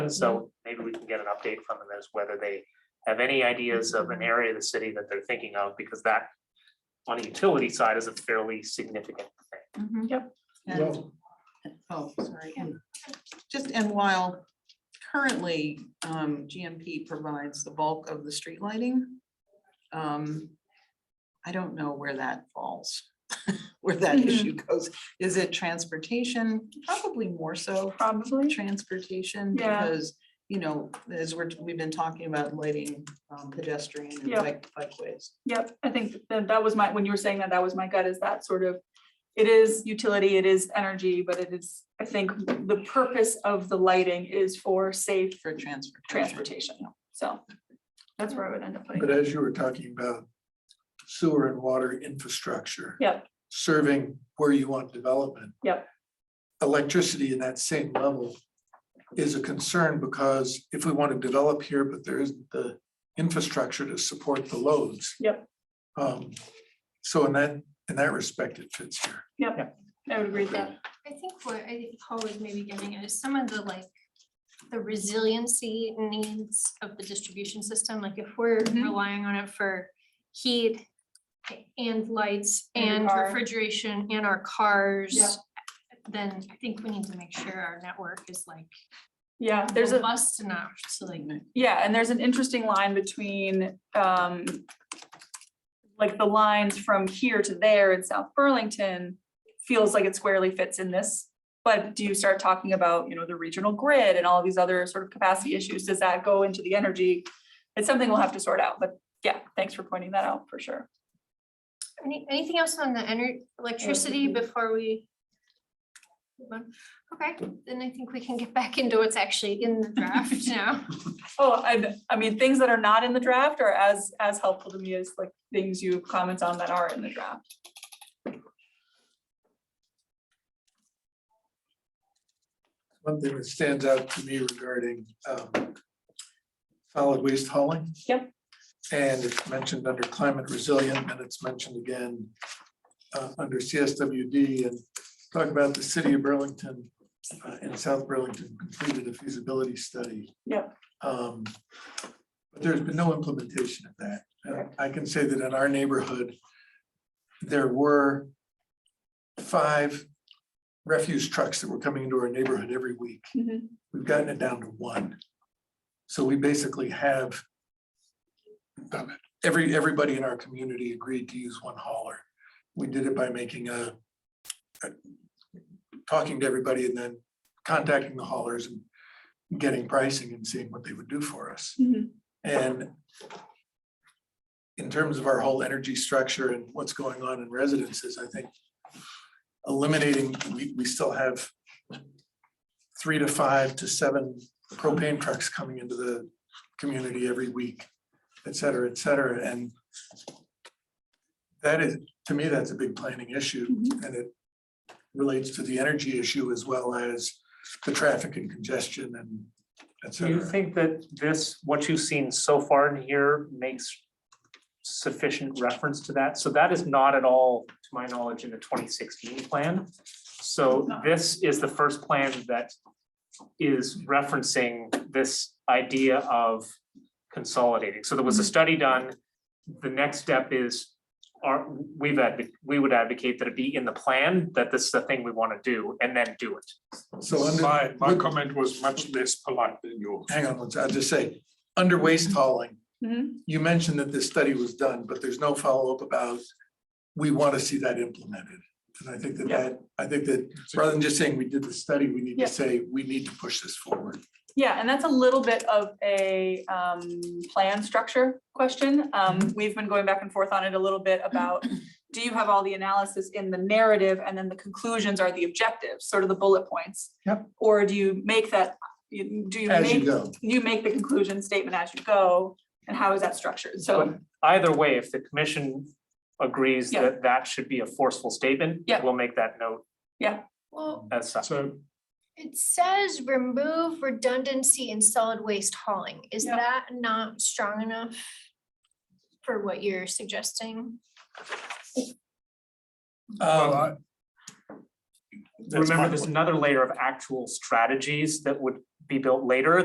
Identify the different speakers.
Speaker 1: So maybe we can get an update from them as whether they have any ideas of an area of the city that they're thinking of, because that on the utility side is a fairly significant thing.
Speaker 2: Mm-hmm. And, oh, sorry, and just, and while currently, um, GMP provides the bulk of the street lighting. Um, I don't know where that falls, where that
Speaker 3: Mhm.
Speaker 2: issue goes. Is it transportation? Probably more so
Speaker 3: Probably.
Speaker 2: transportation
Speaker 3: Yeah.
Speaker 2: because, you know, as we're, we've been talking about lighting um, pedestrian and
Speaker 3: Yeah.
Speaker 2: bike, bikeways.
Speaker 3: Yep, I think that that was my, when you were saying that, that was my gut is that sort of, it is utility, it is energy, but it is, I think the purpose of the lighting is for safe
Speaker 2: For transportation.
Speaker 3: transportation. So that's where I would end up putting
Speaker 4: But
Speaker 3: it.
Speaker 4: as you were talking about sewer and water infrastructure.
Speaker 3: Yep.
Speaker 4: Serving where you want development.
Speaker 3: Yep.
Speaker 4: Electricity in that same level is a concern because if we want to develop here, but there isn't the infrastructure to support the loads.
Speaker 3: Yep.
Speaker 4: Um, so in that, in that respect, it fits here.
Speaker 3: I would agree with that.
Speaker 5: I think what I think Paul was maybe getting at is some of the like, the resiliency needs of the distribution system, like if we're
Speaker 3: Mhm.
Speaker 5: relying on it for heat and lights
Speaker 3: And your
Speaker 5: and
Speaker 3: car.
Speaker 5: refrigeration and our
Speaker 3: Yeah.
Speaker 5: cars, then I think we need to make sure our network is like
Speaker 3: Yeah, there's a,
Speaker 5: robust enough to like.
Speaker 3: yeah, and there's an interesting line between, um, like the lines from here to there in South Burlington feels like it squarely fits in this. But do you start talking about, you know, the regional grid and all these other sort of capacity issues? Does that go into the energy? It's something we'll have to sort out, but yeah, thanks for pointing that out for sure.
Speaker 5: Any, anything else on the energy, electricity before we? move on? Okay, then I think we can get back into what's actually in the draft now.
Speaker 3: Oh, I, I mean, things that are not in the draft are as, as helpful to me as like things you comment on that are in the draft.
Speaker 4: One thing that stands out to me regarding um, solid waste hauling.
Speaker 3: Yep.
Speaker 4: And it's mentioned under climate resilient and it's mentioned again uh, under CSWD and talk about the city of Burlington uh, and South Burlington completed a feasibility study.
Speaker 3: Yep.
Speaker 4: Um, But there's been no implementation of that. Uh, I can say that in our neighborhood, there were five refuse trucks that were coming into our neighborhood every week.
Speaker 3: Mhm.
Speaker 4: We've gotten it down to one. So we basically have um, every, everybody in our community agreed to use one hauler. We did it by making a a- talking to everybody and then contacting the haulers and getting pricing and seeing what they would do for us. And in terms of our whole energy structure and what's going on in residences, I think eliminating, we, we still have three to five to seven propane trucks coming into the community every week, et cetera, et cetera, and that is, to me, that's a big planning issue, and it relates to the energy issue as well as the traffic and congestion and et
Speaker 1: Do you
Speaker 4: cetera.
Speaker 1: think that this, what you've seen so far in here makes sufficient reference to that? So that is not at all, to my knowledge, in the twenty sixteen plan. So this is the first plan that is referencing this idea of consolidating. So there was a study done. The next step is, are, we've, advo- we would advocate that it be in the plan, that this is the thing we want to do, and then do it.
Speaker 4: So under.
Speaker 6: My, my
Speaker 4: with-
Speaker 6: comment was much less polite than yours.
Speaker 4: hang on, one sec- I'll just say, under
Speaker 3: Mm-hmm.
Speaker 4: waste hauling,
Speaker 3: Mhm.
Speaker 4: you mentioned that this study was done, but there's no follow-up about, we want to see that implemented. And I think that
Speaker 3: Yeah.
Speaker 4: that, I think that rather than just saying we did the study, we need
Speaker 3: Yeah.
Speaker 4: to say, we need to push this forward.
Speaker 3: Yeah, and that's a little bit of a um plan structure question.
Speaker 4: Mm-hmm.
Speaker 3: Um, we've been going back and forth on it a little bit about. Do you have all the analysis in the narrative and then the conclusions are the objectives, sort of the bullet points?
Speaker 4: Yep.
Speaker 3: Or do you make that, you- do you
Speaker 4: As you
Speaker 3: make,
Speaker 4: go,
Speaker 3: you make the conclusion statement as you go? And how is that structured? So,
Speaker 1: But either way, if the commission agrees
Speaker 3: Yeah.
Speaker 1: that that should be a forceful statement.
Speaker 3: Yeah.
Speaker 1: We'll make that note
Speaker 5: Well,
Speaker 1: as such.
Speaker 6: So
Speaker 4: Um,
Speaker 5: It says remove redundancy in solid waste hauling. Is
Speaker 3: Yeah.
Speaker 5: that not strong enough? For what you're suggesting?
Speaker 6: well, I- that's
Speaker 1: Remember,
Speaker 6: my
Speaker 1: there's
Speaker 6: point.
Speaker 1: another layer of actual strategies that would be built later